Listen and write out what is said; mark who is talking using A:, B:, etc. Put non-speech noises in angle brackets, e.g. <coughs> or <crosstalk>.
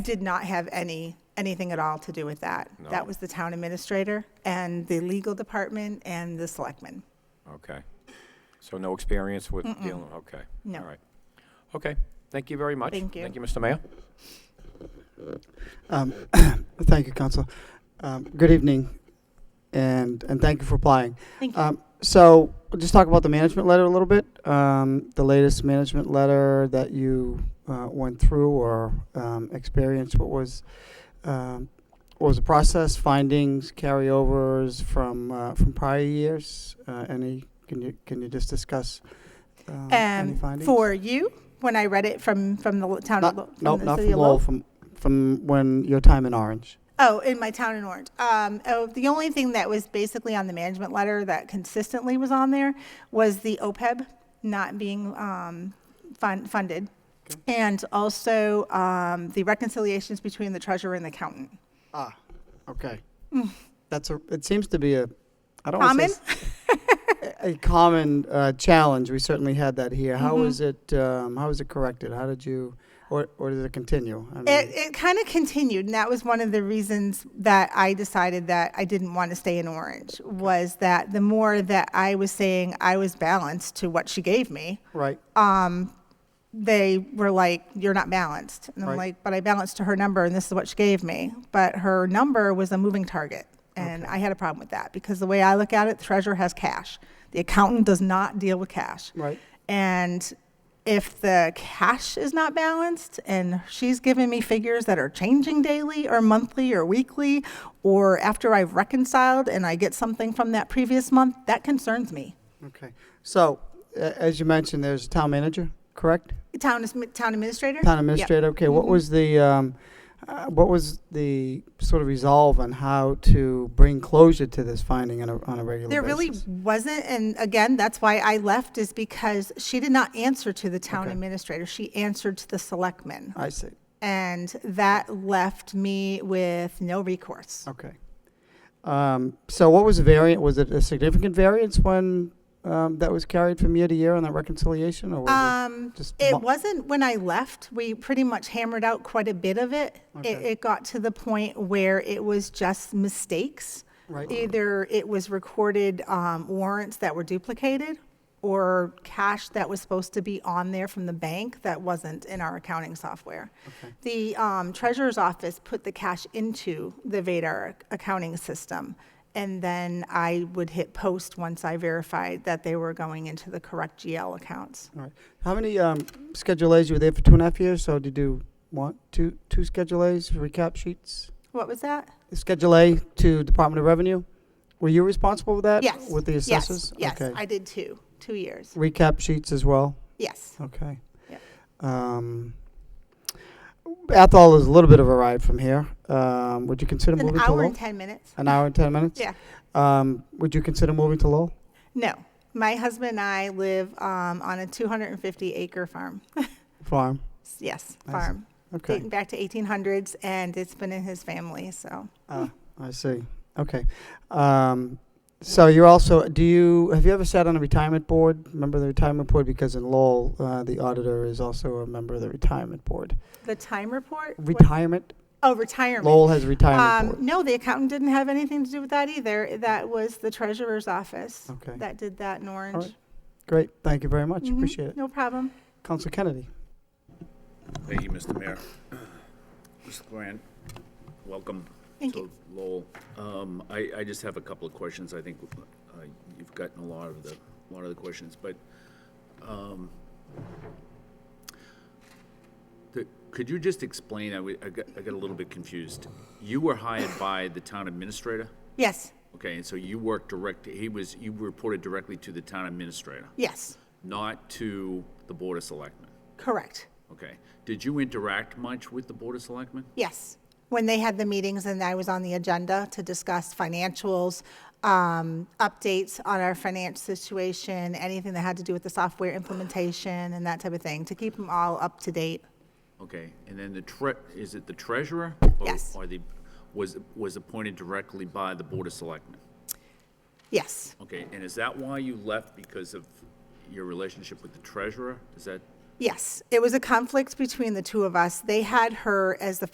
A: did not have any, anything at all to do with that. That was the town administrator and the legal department and the selectmen.
B: Okay. So no experience with dealing, okay.
A: No.
B: All right. Okay, thank you very much.
A: Thank you.
B: Thank you, Mr. Mayor.
C: Um, <coughs> Thank you, Council. Um, Good evening, and, and thank you for applying.
A: Thank you.
C: Um, So, we'll just talk about the management letter a little bit, Um, the latest management letter that you uh, went through or um, experienced, what was, um, what was the process, findings, carryovers from, uh, from prior years? Uh, Any, can you, can you just discuss um, any
A: And
C: findings?
A: for you, when I read it from, from the town, of Lo-
C: Not, no,
A: from the
C: not
A: city
C: from
A: of
C: Lowell,
A: Lowell.
C: from, from when, your time in Orange.
A: Oh, in my town in Orange. Um, oh, the only thing that was basically on the management letter that consistently was on there was the OPEB not being, um, fun, funded. And also, um, the reconciliations between the treasurer and the accountant.
C: Ah, okay. That's a. It seems to be a. I don't
A: Mm. Common?
C: wanna say s- a a common uh, challenge. We certainly had that here. How
A: Mm-hmm.
C: was it? Um, how was it corrected? How did you? Or or does it continue? I mean,
A: It, it kind of continued, and that was one of the reasons that I decided that I didn't want to stay in Orange, was that the more that I was saying I was balanced to what she gave me,
C: right.
A: Uh, they were like, you're not balanced. And I'm
C: Right.
A: like, but I balanced to her number, and this is what she gave me. But her number was a moving target, and I had a problem with that, because the way I look at it, the treasurer has cash. The accountant does not deal with cash.
C: Right.
A: And if the cash is not balanced and she's giving me figures that are changing daily or monthly or weekly, or after I've reconciled and I get something from that previous month, that concerns me.
C: okay. So a as you mentioned, there's a town manager, correct?
A: Town, is- town administrator?
C: Town
A: Yep. Mm-hmm.
C: administrator. Okay. What was the? Um, uh, what was the sort of resolve on how to bring closure to this finding on a, on a regular
A: There
C: basis?
A: really wasn't, and again, that's why I left, is because she did not answer to the town
C: Okay.
A: administrator. She answered to the selectmen.
C: I see.
A: And that left me with no recourse.
C: Okay. Um, So what was the variant, was it a significant variance when um, that was carried from year to year on that reconciliation, or was
A: Um,
C: it just? mo-
A: It wasn't when I left. We pretty much hammered out quite a bit of it. It,
C: Okay.
A: it got to the point where it was just mistakes.
C: Right.
A: Either it was recorded um, warrants that were duplicated or cash that was supposed to be on there from the bank that wasn't in our accounting software. The um, treasurer's office put the cash into the Vadar accounting system. And then I would hit post once I verified that they were going into the correct GL accounts.
C: All right. How many um, Schedule As, you were there for two and a half years, so did you want two, two Schedule As, recap sheets?
A: What was that?
C: Schedule A to Department of Revenue? Were you responsible with that?
A: Yes.
C: Uh, With the
A: Yes,
C: assessors?
A: Yes,
C: Okay.
A: I did two, two years.
C: Recap sheets as well?
A: Yes.
C: Okay.
A: Yep.
C: Um, Athol is a little bit of a ride from here. Um, Would you consider
A: An
C: moving to
A: hour
C: Lowell?
A: and 10 minutes?
C: An hour and 10 minutes?
A: Yeah.
C: Um, would you consider moving to Lowell?
A: No. My husband and I live um, on a 250 acre farm.
C: Farm?
A: yes,
C: I see.
A: farm.
C: Okay.
A: Dating back to 1800s, and it's been in his family. So
C: Ah, I see. Okay. Um, so you're also, do you, have you ever sat on a retirement board? Remember the retirement board? Because in Lowell, uh, the auditor is also a member of the retirement board.
A: the time report? what-
C: Retirement?
A: Oh, retirement.
C: Lowell has a retirement
A: Um,
C: board.
A: no, the accountant didn't have anything to do with that either. That was the treasurer's office
C: Okay.
A: that did that in Orange.
C: right. Great. Thank you very much.
A: Mhm,
C: Appreciate it.
A: No problem.
C: Council Kennedy.
D: Thank you, Mr. Mayor. Mr. Grant, welcome
A: Thank
D: to Lowell. Um, I, I just have a couple of questions. I think uh, you've gotten a lot of the, a lot of the questions, but um, the- could you just explain, I wa- I got, I got a little bit confused. You were hired by the town administrator?
A: Yes,
D: Okay, and so you worked direct, he was, you reported directly to the town administrator,
A: yes,
D: not to the Board of Selectmen?
A: correct.
D: Okay. Did you interact much with the Board of Selectmen?
A: Yes, when they had the meetings and I was on the agenda to discuss financials, um, updates on our financial situation, anything that had to do with the software implementation and that type of thing, to keep them all up to date.
D: Okay, and then the tre, is it the treasurer? or-
A: Yes.
D: Or the, was, was appointed directly by the Board of Selectmen?
A: Yes,
D: Okay, and is that why you left because of your relationship with the treasurer? Is that?
A: yes, it was a conflict between the two of us. They had her as the